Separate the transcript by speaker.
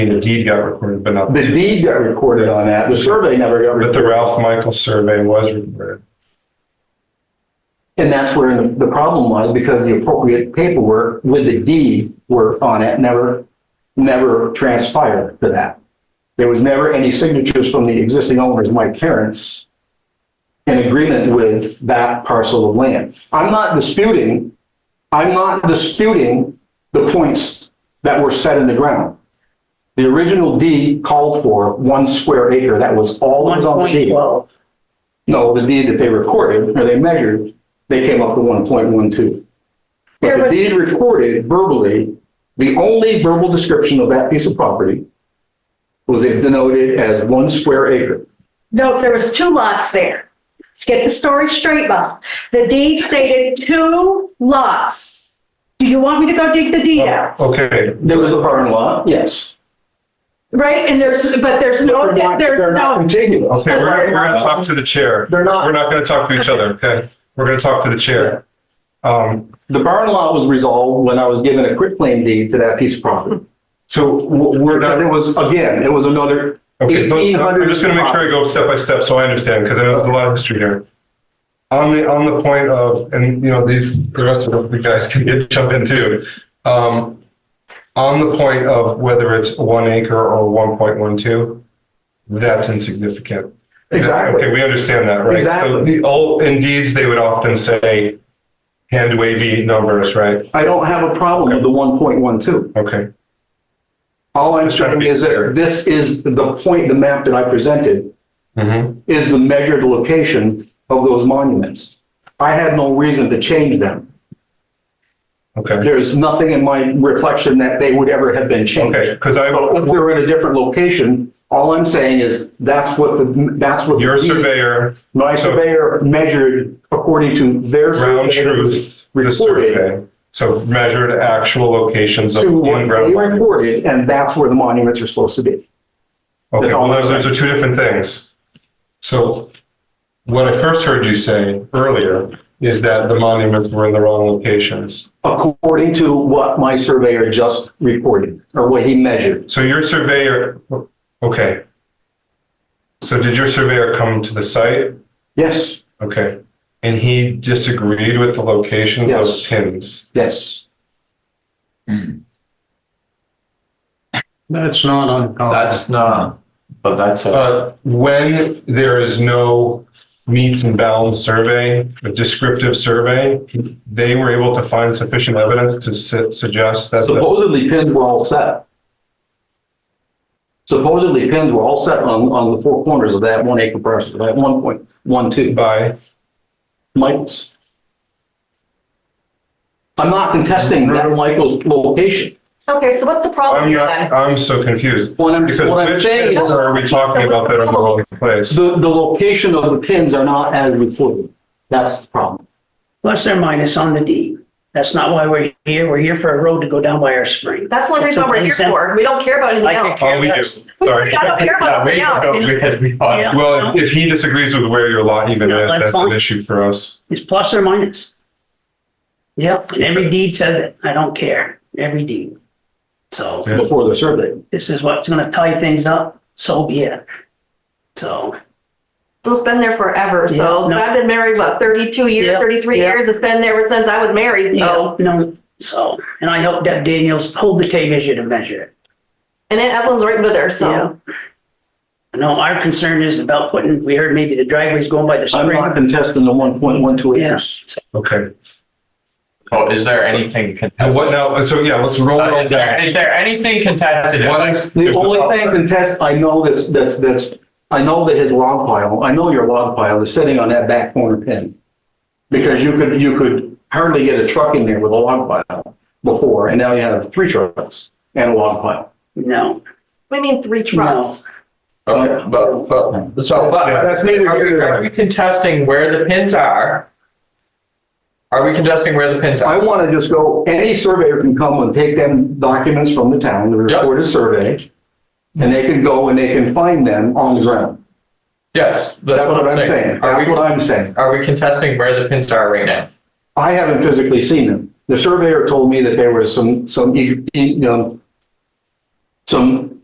Speaker 1: The deed got recorded, but not,
Speaker 2: The deed got recorded on that. The survey never got
Speaker 1: but
Speaker 2: recorded.
Speaker 1: the Ralph Michael survey was recorded.
Speaker 2: And that's where the the problem was because the appropriate paperwork with the deed were on it, never, never transpired for that. There was never any signatures from the existing owners, my parents, in agreement with that parcel of land. I'm not disputing, I'm not disputing the points that were set in the ground. The original deed called for one square acre. That was all that
Speaker 3: One
Speaker 2: was on the
Speaker 3: point
Speaker 2: deed.
Speaker 3: twelve.
Speaker 2: No, the deed that they recorded, or they measured, they came up with one point one two.
Speaker 3: There
Speaker 2: But the
Speaker 3: was-
Speaker 2: deed recorded verbally, the only verbal description of that piece of property was it denoted as one square acre.
Speaker 3: No, there was two lots there. Let's get the story straight, Bob. The deed stated two lots. Do you want me to go dig the deed out?
Speaker 1: Okay,
Speaker 2: There was a barn lot, yes.
Speaker 3: Right, and there's, but there's
Speaker 2: They're
Speaker 3: no,
Speaker 2: not-
Speaker 3: there's
Speaker 2: They're not
Speaker 3: no,
Speaker 2: contiguous.
Speaker 1: okay, we're, we're gonna talk to the chair.
Speaker 2: They're not.
Speaker 1: We're not gonna talk to each other, okay? We're gonna talk to the chair. Um,
Speaker 2: The barn lot was resolved when I was given a quitclaim deed to that piece of property.
Speaker 1: so w- we're
Speaker 2: Where,
Speaker 1: not,
Speaker 2: it was, again, it was another
Speaker 1: okay, but
Speaker 2: eighteen hundred.
Speaker 1: I'm just gonna make sure I go step by step so I understand, because I know there's a lot of history here. On the, on the point of, and you know, these, the rest of the guys can get, jump in too. Um, on the point of whether it's one acre or one point one two, that's insignificant.
Speaker 2: Exactly.
Speaker 1: Okay, we understand that, right?
Speaker 2: Exactly.
Speaker 1: So The old, in deeds, they would often say hand wavy numbers, right?
Speaker 2: I don't have a problem with the one point one two.
Speaker 1: Okay,
Speaker 2: All I'm
Speaker 1: Just trying to
Speaker 2: saying
Speaker 1: be
Speaker 2: is
Speaker 1: clear.
Speaker 2: that this is the point, the map that I presented
Speaker 1: Mhm.
Speaker 2: is the measured location of those monuments. I had no reason to change them.
Speaker 1: okay,
Speaker 2: There's nothing in my reflection that they would ever have been
Speaker 1: okay,
Speaker 2: changed.
Speaker 1: because I,
Speaker 2: So if they're in a different location, all I'm saying is that's what the, that's what. the-
Speaker 1: your surveyor,
Speaker 2: My surveyor measured according to their.
Speaker 1: ground
Speaker 2: survey
Speaker 1: truth, the
Speaker 2: Recorded
Speaker 1: survey. So measured actual locations of
Speaker 2: to what they
Speaker 1: in-ground. monuments.
Speaker 2: recorded, and that's where the monuments are supposed to be.
Speaker 1: Okay,
Speaker 2: That's
Speaker 1: well,
Speaker 2: all
Speaker 1: those,
Speaker 2: I'm
Speaker 1: those are two different things. So what I first heard you say earlier is that the monuments were in the wrong locations.
Speaker 2: according to what my surveyor just recorded or what he measured.
Speaker 1: So your surveyor, okay. So did your surveyor come to the site?
Speaker 2: Yes,
Speaker 1: Okay. And he disagreed with the locations of
Speaker 2: Yes.
Speaker 1: pins?
Speaker 2: yes.
Speaker 4: That's not uncommon.
Speaker 5: That's not, but that's a,
Speaker 1: Uh, when there is no meets and bounds survey, a descriptive survey, they were able to find sufficient evidence to su- suggest that, the-
Speaker 2: Supposedly pins were all set. Supposedly pins were all set on, on the four corners of that one acre parcel, that one point one two
Speaker 1: by,
Speaker 2: Michaels. I'm not contesting that Michael's location.
Speaker 6: Okay, so what's the problem
Speaker 1: I'm
Speaker 6: here
Speaker 1: not,
Speaker 6: then?
Speaker 1: I'm so confused.
Speaker 2: What I'm,
Speaker 1: Because
Speaker 2: what I'm
Speaker 1: which
Speaker 2: saying
Speaker 1: pins
Speaker 2: is
Speaker 1: are we talking about that are in the wrong place?
Speaker 2: the, the location of the pins are not as reported. That's the problem.
Speaker 7: plus or minus on the deed. That's not why we're here. We're here for a road to go down by our spring.
Speaker 6: That's the only reason why we're here for. We don't care about anything
Speaker 7: I think-
Speaker 6: else.
Speaker 1: Oh, we do, sorry.
Speaker 6: I don't care about anything else.
Speaker 7: Yeah.
Speaker 1: Well, if if he disagrees with where your lot even
Speaker 7: Yeah,
Speaker 1: is,
Speaker 7: that's
Speaker 1: that's an
Speaker 7: fine.
Speaker 1: issue for us.
Speaker 7: It's plus or minus. Yep, and every deed says it. I don't care. Every deed. So
Speaker 1: Yeah.
Speaker 2: Before the survey.
Speaker 7: this is what's gonna tie things up, so be it. So,
Speaker 6: It's been there forever,
Speaker 7: Yeah,
Speaker 6: so
Speaker 7: no.
Speaker 6: I've been married, what, thirty-two
Speaker 7: Yeah,
Speaker 6: years, thirty-three
Speaker 7: yeah.
Speaker 6: years? It's been there ever since I was married,
Speaker 7: you
Speaker 6: so.
Speaker 7: know, no, so, and I helped Deb Daniels hold the tape measure to measure it.
Speaker 6: And then Evelyn's right with her, so.
Speaker 7: No, our concern is about putting, we heard maybe the driveway's going by the
Speaker 2: I'm
Speaker 7: spring.
Speaker 2: not contesting the one point one two
Speaker 7: Yeah.
Speaker 2: acres.
Speaker 1: Okay.
Speaker 5: oh, is there anything
Speaker 1: And
Speaker 5: contested?
Speaker 1: what now, so yeah, let's roll
Speaker 5: Uh,
Speaker 1: it
Speaker 5: Is there,
Speaker 1: back.
Speaker 5: is there anything contested?
Speaker 1: What I-
Speaker 2: The only thing contest, I know this, that's, that's, I know that his log pile, I know your log pile is sitting on that back corner pin. Because you could, you could hardly get a truck in there with a log pile before, and now you have three trucks and a log pile.
Speaker 7: No,
Speaker 6: We mean three trucks.
Speaker 5: Okay, but, but, so,
Speaker 1: Yeah,
Speaker 5: but,
Speaker 1: that's neither
Speaker 5: are
Speaker 1: here
Speaker 5: we,
Speaker 1: nor
Speaker 5: are we contesting where the pins are? Are we contesting where the pins
Speaker 2: I
Speaker 5: are?
Speaker 2: want to just go, any surveyor can come and take them documents from the town, the
Speaker 5: Yep.
Speaker 2: recorded survey. And they can go and they can find them on the ground.
Speaker 5: Yes.
Speaker 2: That's what I'm saying.
Speaker 5: Are
Speaker 2: That's what
Speaker 5: we,
Speaker 2: I'm saying.
Speaker 5: are we contesting where the pins are right now?
Speaker 2: I haven't physically seen them. The surveyor told me that there was e, um, some, some, you know, some